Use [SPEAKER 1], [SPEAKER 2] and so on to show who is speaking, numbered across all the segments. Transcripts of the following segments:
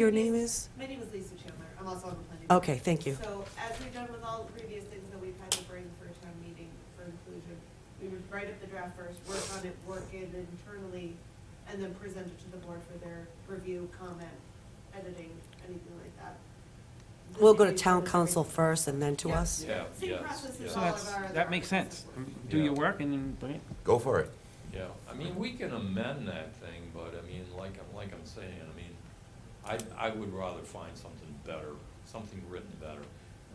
[SPEAKER 1] Your name is?
[SPEAKER 2] My name is Lisa Chandler. I'm also on the planning. board.
[SPEAKER 1] Okay, thank you.
[SPEAKER 2] So as we've done with all the previous things that we've had to bring for a town meeting for inclusion, we would write up the draft first, work on it, work it internally, and then present it to the board for their review, comment, editing, anything like that. This
[SPEAKER 1] We'll go to
[SPEAKER 2] meeting
[SPEAKER 1] town
[SPEAKER 2] was
[SPEAKER 1] council
[SPEAKER 2] great.
[SPEAKER 1] first and then to
[SPEAKER 2] Yeah.
[SPEAKER 1] us?
[SPEAKER 3] Yeah,
[SPEAKER 2] Same
[SPEAKER 3] yes,
[SPEAKER 2] process
[SPEAKER 3] yes.
[SPEAKER 2] as
[SPEAKER 4] So
[SPEAKER 2] all of
[SPEAKER 4] that's,
[SPEAKER 2] our other.
[SPEAKER 4] that makes
[SPEAKER 2] processes
[SPEAKER 4] sense.
[SPEAKER 2] work.
[SPEAKER 4] Do
[SPEAKER 3] Yeah.
[SPEAKER 4] your work and then bring it.
[SPEAKER 5] Go for it.
[SPEAKER 3] Yeah, I mean, we can amend that thing, but I mean, like, I'm like I'm saying, I mean, I, I would rather find something better, something written better.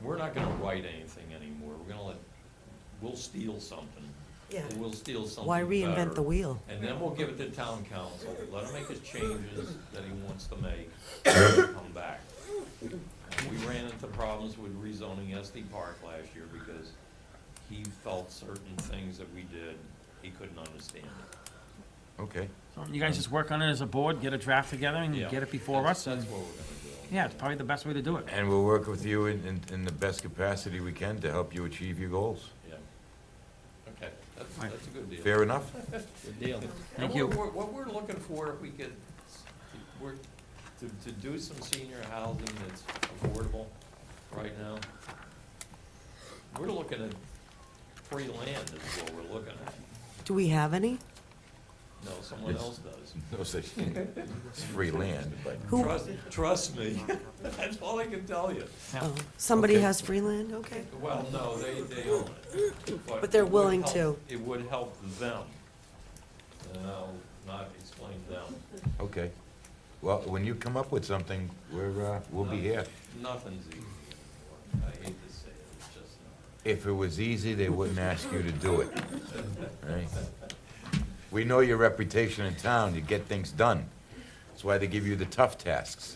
[SPEAKER 3] We're not gonna write anything anymore, we're gonna let, we'll steal something.
[SPEAKER 1] Yeah.
[SPEAKER 3] We'll steal something
[SPEAKER 1] Why reinvent
[SPEAKER 3] better.
[SPEAKER 1] the wheel?
[SPEAKER 3] And then we'll give it to town council, let him make his changes that he wants to make, and then come back. We ran into problems with rezoning SD Park last year because he felt certain things that we did, he couldn't understand.
[SPEAKER 5] Okay.
[SPEAKER 4] You guys just work on it as a board, get a draft together and
[SPEAKER 3] Yeah,
[SPEAKER 4] Mm, get it before
[SPEAKER 3] that's-
[SPEAKER 4] us. and-
[SPEAKER 3] That's what we're gonna do.
[SPEAKER 4] Yeah, it's probably the best way to do it.
[SPEAKER 5] And we'll work with you in, in, in the best capacity we can to help you achieve your goals.
[SPEAKER 3] Yeah. Okay, that's,
[SPEAKER 4] Right.
[SPEAKER 3] that's a good deal.
[SPEAKER 5] Fair enough?
[SPEAKER 3] Good deal. And
[SPEAKER 4] Thank
[SPEAKER 3] what
[SPEAKER 4] you.
[SPEAKER 3] we're- What we're looking for, if we could, s- to- we're, to, to do some senior housing that's affordable right now, we're looking at free land is what we're looking at.
[SPEAKER 1] Do we have any?
[SPEAKER 3] No, someone else does.
[SPEAKER 5] No such thing. It's free land, but
[SPEAKER 1] Who-
[SPEAKER 3] Trust, trust me, that's all I can tell you.
[SPEAKER 4] Yeah.
[SPEAKER 1] Oh, Somebody
[SPEAKER 5] Okay.
[SPEAKER 1] has free land, okay.
[SPEAKER 3] Well, no, they, they own it.
[SPEAKER 1] But they're
[SPEAKER 3] it would
[SPEAKER 1] willing
[SPEAKER 3] help- It would help them. And I'll not explain them.
[SPEAKER 5] okay. Well, when you come up with something, we're, uh, we'll be here.
[SPEAKER 3] Nothing's easy anymore. I hate to say it, it's just not.
[SPEAKER 5] If it was easy, they wouldn't ask you to do it. Right? We know your reputation in town. You get things done. That's why they give you the tough tasks.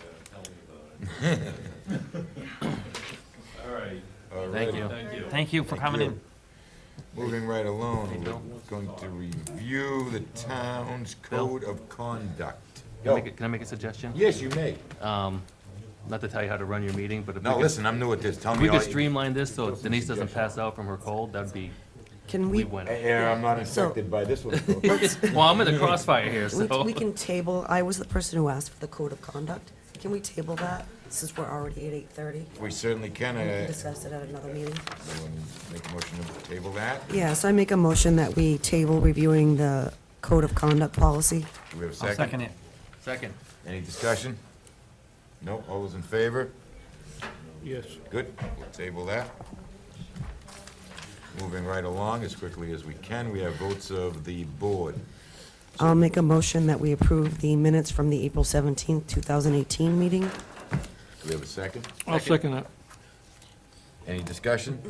[SPEAKER 3] Yeah, Tell me about it. All right.
[SPEAKER 5] Thank
[SPEAKER 3] you. Thank you.
[SPEAKER 4] Thank you for
[SPEAKER 5] Thank
[SPEAKER 4] coming
[SPEAKER 5] you.
[SPEAKER 4] in.
[SPEAKER 5] Moving right along,
[SPEAKER 3] Bill.
[SPEAKER 5] we're going to review the town's
[SPEAKER 6] Bill.
[SPEAKER 5] code of conduct.
[SPEAKER 6] Can I make a- can I make a suggestion?
[SPEAKER 5] Oh, Yes, you may.
[SPEAKER 6] Um, Not to tell you how to run your meeting, but if we
[SPEAKER 5] No,
[SPEAKER 6] could-
[SPEAKER 5] listen, I'm new at this, tell
[SPEAKER 6] if
[SPEAKER 5] me
[SPEAKER 6] we
[SPEAKER 5] all
[SPEAKER 6] could
[SPEAKER 5] you...
[SPEAKER 6] streamline this so Denise doesn't pass out from her cold, that'd be,
[SPEAKER 1] Can
[SPEAKER 6] we
[SPEAKER 1] we,
[SPEAKER 6] win.
[SPEAKER 5] Uh, Yeah, I'm not infected by this one. Phil.
[SPEAKER 6] Well, I'm in the crossfire here,
[SPEAKER 1] we
[SPEAKER 6] so.
[SPEAKER 1] we can table, I was the person who asked for the code of conduct. Can we table that, since we're already at 8:30?
[SPEAKER 5] We certainly can,
[SPEAKER 1] We can
[SPEAKER 5] uh,
[SPEAKER 1] discuss it at another meeting.
[SPEAKER 5] someone make a motion to table that.
[SPEAKER 1] Yeah, so I make a motion that we table reviewing the code of conduct policy.
[SPEAKER 5] Do we have a
[SPEAKER 4] I'll second
[SPEAKER 5] second?
[SPEAKER 4] it.
[SPEAKER 6] Second.
[SPEAKER 5] Any discussion? No, all those in favor?
[SPEAKER 7] Yes.
[SPEAKER 5] Good, we'll table that. Moving right along as quickly as we can, we have votes of the board.
[SPEAKER 1] I'll make a motion that we approve the minutes from the April 17th, 2018 meeting.
[SPEAKER 5] Do we have a second?
[SPEAKER 7] I'll second that.
[SPEAKER 5] Any discussion?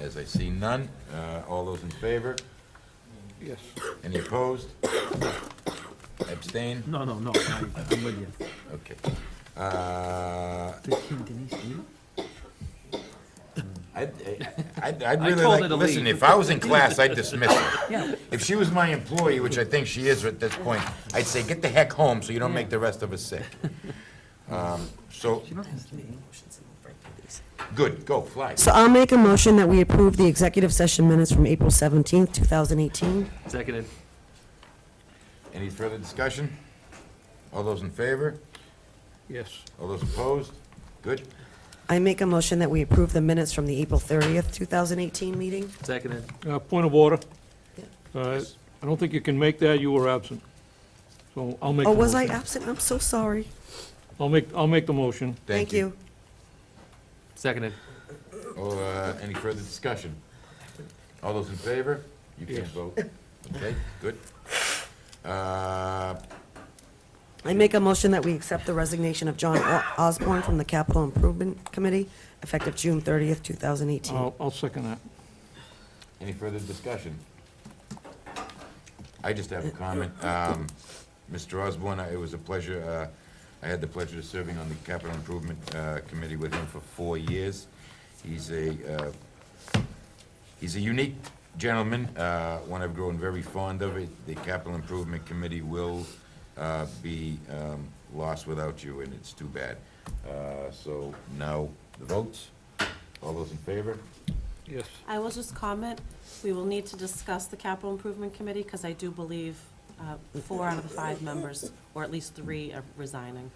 [SPEAKER 5] As I see none, uh, all those in favor?
[SPEAKER 7] Yes.
[SPEAKER 5] Any opposed? Abstain?
[SPEAKER 4] No, no, no, I- I'm with you.
[SPEAKER 5] Okay. Uh, I'd, I'd, I'd
[SPEAKER 6] I
[SPEAKER 5] really
[SPEAKER 6] told
[SPEAKER 5] like,
[SPEAKER 6] her to
[SPEAKER 5] listen,
[SPEAKER 6] leave.
[SPEAKER 5] if I was in class, I'd dismiss her. If she was my employee, which I think she is at this point, I'd say, get the heck home so you don't make the rest of us sick. Um, So, good, go, fly.
[SPEAKER 1] So I'll make a motion that we approve the executive session minutes from April 17th, 2018.
[SPEAKER 6] Seconded.
[SPEAKER 5] Any further discussion? All those in favor?
[SPEAKER 7] Yes.
[SPEAKER 5] All those opposed? Good.
[SPEAKER 1] I make a motion that we approve the minutes from the April 30th, 2018 meeting.
[SPEAKER 6] Seconded.
[SPEAKER 7] Uh, Point of order.
[SPEAKER 1] Yeah.
[SPEAKER 7] Uh, I don't think you can make that, you were absent. So I'll make the
[SPEAKER 1] Oh,
[SPEAKER 7] motion.
[SPEAKER 1] was I absent? I'm so sorry.
[SPEAKER 7] I'll make, I'll make the motion.
[SPEAKER 1] Thank you.
[SPEAKER 6] Seconded.
[SPEAKER 5] Oh, uh, any further discussion? All those in favor? You can't
[SPEAKER 7] Yes.
[SPEAKER 5] vote. Okay, good. Uh,
[SPEAKER 1] I make a motion that we accept the resignation of John O- Osborne from the Capital Improvement Committee, effective June 30th, 2018.
[SPEAKER 7] I'll, I'll second that.
[SPEAKER 5] Any further discussion? I just have a comment. Um, Mr. Osborne, I- it was a pleasure, uh, I had the pleasure of serving on the Capital Improvement uh, Committee with him for four years. He's a, uh, he's a unique gentleman, uh, one I've grown very fond of. It- The Capital Improvement Committee will uh, be um, lost without you, and it's too bad. Uh, So now, the votes. All those in favor?
[SPEAKER 7] Yes.
[SPEAKER 8] I will just comment, we will need to discuss the capital improvement committee, because I do believe uh, four out of the five members, or at least three, are resigning.